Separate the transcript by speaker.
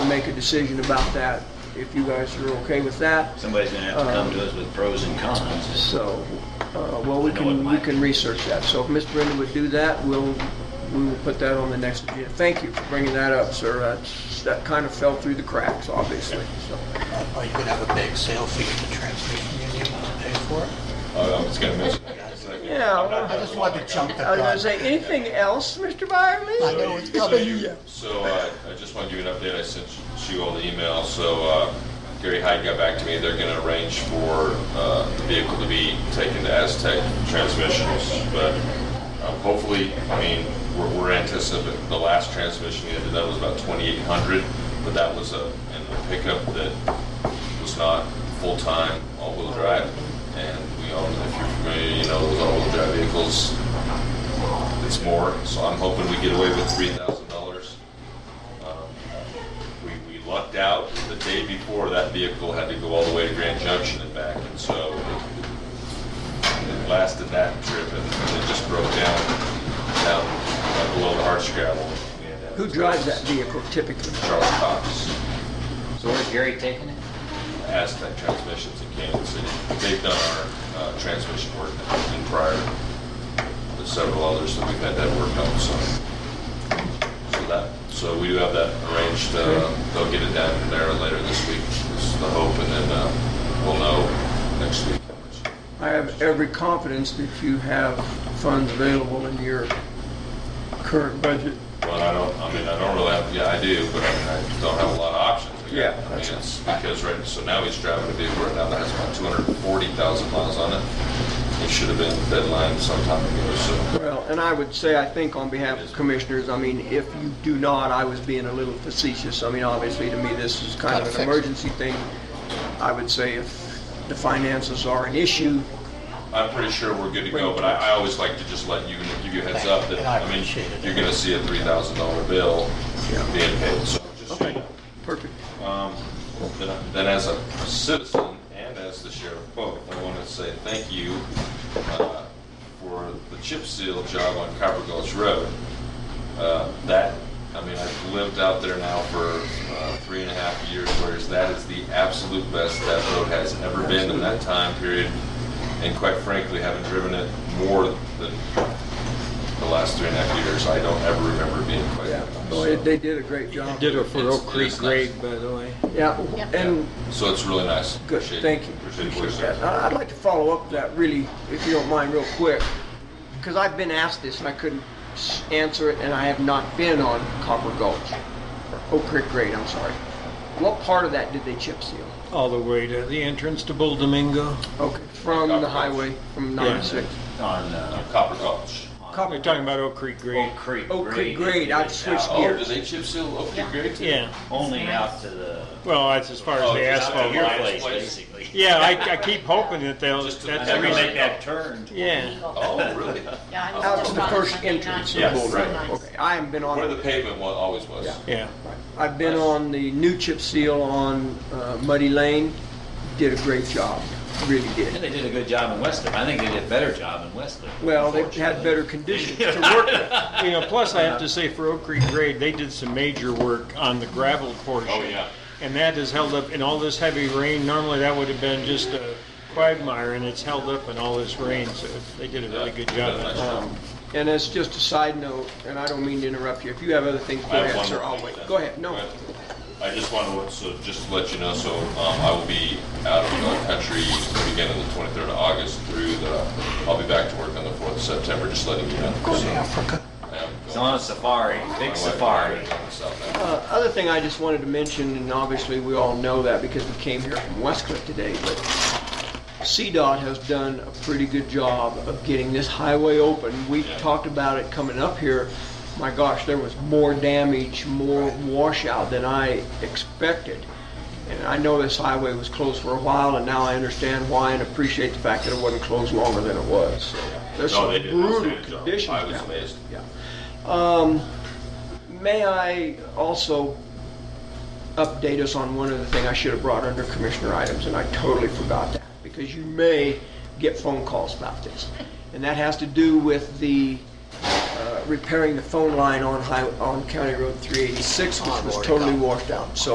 Speaker 1: make a decision about that, if you guys are okay with that.
Speaker 2: Somebody's gonna have to come to us with pros and cons.
Speaker 1: So, uh, well, we can, we can research that. So if Mr. Brennan would do that, we'll, we will put that on the next agenda. Thank you for bringing that up, sir. That's- That kind of fell through the cracks, obviously, so.
Speaker 3: Are you gonna have a big sale fee at the transmission union to pay for it?
Speaker 4: Oh, I was gonna mention that.
Speaker 1: Yeah,
Speaker 3: I
Speaker 1: well,
Speaker 3: just wanted to jump the
Speaker 1: I was gonna
Speaker 3: gun.
Speaker 1: say, anything else, Mr. Byerly?
Speaker 3: I know it's
Speaker 4: So
Speaker 3: coming.
Speaker 4: you- So uh, I just want to give you an update. I sent you all the email. So uh, Gary Hyde got back to me. They're going to arrange for uh, the vehicle to be taken to Aztec Transmissions. But um, hopefully, I mean, we're we're anticipating, the last transmission we had to that was about 2,800, but that was a in a pickup that was not full-time all-wheel drive. And we all, if you're familiar, you know, those all-wheel drive vehicles, it's more, so I'm hoping we get away with three thousand dollars. Um, We, we lucked out, the day before, that vehicle had to go all the way to Grand Junction and back, and so it it lasted that trip, and it just broke down, down uh, below the arch gravel. uh,
Speaker 1: Who drives that vehicle typically?
Speaker 4: Charles Cox,
Speaker 2: So where's Gary taking it?
Speaker 4: Aztec Transmissions in Kansas City. They've done our uh, transmission work in prior, there's several others that we've had that work on, so. So that, so we do have that arranged, uh, they'll get it down there later this week, is the hope, and then, uh, we'll know next week.
Speaker 1: I have every confidence that you have funds available in your current budget.
Speaker 4: Well, I don't, I mean, I don't really have, yeah, I do, but I mean, I don't have a lot of options. We got-
Speaker 1: Yeah,
Speaker 4: I mean,
Speaker 1: that's-
Speaker 4: it's because right, so now he's driving a vehicle right now that has about two hundred and forty thousand miles on it. It should have been deadline sometime ago, so.
Speaker 1: Well, and I would say, I think on behalf of the commissioners, I mean, if you do not, I was being a little facetious. I mean, obviously, to me, this is kind of an emergency thing. I would say if the finances are an issue,
Speaker 4: I'm pretty sure we're good to go, but I, I always like to just let you, give you a heads up that,
Speaker 3: And I
Speaker 4: I mean,
Speaker 3: appreciate it.
Speaker 4: you're gonna see a three thousand dollar bill
Speaker 1: Yeah.
Speaker 4: being paid, so just so you know.
Speaker 1: perfect.
Speaker 4: Um, Then then as a citizen and as the sheriff both, I want to say thank you uh, for the chip seal job on Copper Gulch Road. Uh, That, I mean, I've lived out there now for uh, three and a half years, whereas that is the absolute best that road has ever been in that time period. And quite frankly, having driven it more than the last three and a half years, I don't ever remember it being quite
Speaker 1: Yeah,
Speaker 4: that
Speaker 1: Well, they-
Speaker 4: nice.
Speaker 1: they did a great job.
Speaker 5: Did it for
Speaker 4: It's-
Speaker 5: Oak Creek
Speaker 4: it's nice.
Speaker 5: Grade, by the way.
Speaker 1: Yeah, and
Speaker 4: So it's really nice.
Speaker 1: Good,
Speaker 4: Appreciate-
Speaker 1: thank you.
Speaker 4: Appreciate it.
Speaker 1: Appreciate that. I- I'd like to follow up that really, if you don't mind, real quick, because I've been asked this and I couldn't s- answer it, and I have not been on Copper Gulch, or Oak Creek Grade, I'm sorry. What part of that did they chip seal?
Speaker 5: All the way to the entrance to Bull Domingo.
Speaker 1: Okay, from
Speaker 4: Copper
Speaker 1: the
Speaker 4: Gulch.
Speaker 1: highway, from 96.
Speaker 2: On, uh,
Speaker 4: Copper Gulch.
Speaker 5: We're talking about Oak Creek Grade.
Speaker 1: Oh,
Speaker 2: Oak Creek.
Speaker 1: Oak Creek Grade,
Speaker 2: is
Speaker 1: I've
Speaker 2: out-
Speaker 1: switched
Speaker 4: Oh, do they chip seal Oak Creek Grade too?
Speaker 5: Yeah,
Speaker 2: Only out to the,
Speaker 5: well, that's as far as
Speaker 4: Oh,
Speaker 5: the
Speaker 4: just
Speaker 2: out
Speaker 4: out
Speaker 5: asphalt.
Speaker 2: to your
Speaker 4: Asphalt.
Speaker 2: place, basically.
Speaker 5: Yeah, I, I keep hoping that they'll,
Speaker 4: Just to-
Speaker 2: I
Speaker 5: that's the
Speaker 2: never make
Speaker 5: reason.
Speaker 2: that turn.
Speaker 5: Yeah,
Speaker 4: Oh, really?
Speaker 6: Yeah, I'm
Speaker 1: Out to
Speaker 6: still
Speaker 1: the
Speaker 6: on
Speaker 1: first
Speaker 6: Monday
Speaker 1: entrance
Speaker 6: night.
Speaker 1: of Bull
Speaker 4: Yes, right.
Speaker 1: Run. Okay, I haven't been on
Speaker 4: Where
Speaker 1: it.
Speaker 4: the pavement wa- always was.
Speaker 1: Yeah.
Speaker 5: yeah.
Speaker 1: I've been on the new chip seal on uh, Muddy Lane, did a great job, really
Speaker 2: Yeah,
Speaker 1: did.
Speaker 2: they did a good job in Weston. I think they did a better job in Weston.
Speaker 1: Well, they've had better conditions to work with.
Speaker 5: You know, plus I have to say for Oak Creek Grade, they did some major work on the gravel portion.
Speaker 4: Oh, yeah.
Speaker 5: And that has held up in all this heavy rain. Normally that would have been just a quagmire and it's held up in all this rain, so they did a really good job.
Speaker 4: Yeah, nice
Speaker 1: Um, And as just a side note, and I don't mean to interrupt you, if you have other things, go
Speaker 4: I have
Speaker 1: ahead,
Speaker 4: one
Speaker 1: sir,
Speaker 4: more
Speaker 1: I'll
Speaker 4: thing
Speaker 1: wait.
Speaker 4: then.
Speaker 1: Go ahead, no.
Speaker 4: I just want to, so just to let you know, so um, I will be out of the country beginning the 23rd of August through the, I'll be back to work on the 4th of September, just letting you know.
Speaker 3: Go to
Speaker 4: So,
Speaker 3: Africa.
Speaker 4: I am
Speaker 2: It's
Speaker 4: going-
Speaker 2: on a safari,
Speaker 4: my
Speaker 2: big
Speaker 4: wife and I
Speaker 2: safari.
Speaker 4: are going south
Speaker 1: Uh,
Speaker 4: now.
Speaker 1: Other thing I just wanted to mention, and obviously we all know that because we came here from West Cliff today, but CDOT has done a pretty good job of getting this highway open. We
Speaker 4: Yeah.
Speaker 1: talked about it coming up here. My gosh, there was more damage, more washout than I expected. And I know this highway was closed for a while, and now I understand why and appreciate the fact that it wasn't closed longer than it was. So There's
Speaker 4: No,
Speaker 1: some
Speaker 4: they did an
Speaker 1: brutal
Speaker 4: outstanding job.
Speaker 1: conditions
Speaker 4: I was
Speaker 1: down there.
Speaker 4: amazed.
Speaker 1: Yeah. Um, May I also update us on one other thing I should have brought under commissioner items, and I totally forgot that, because you may get phone calls about this. And that has to do with the uh, repairing the phone line on High, on County Road 386, which was totally washed out. So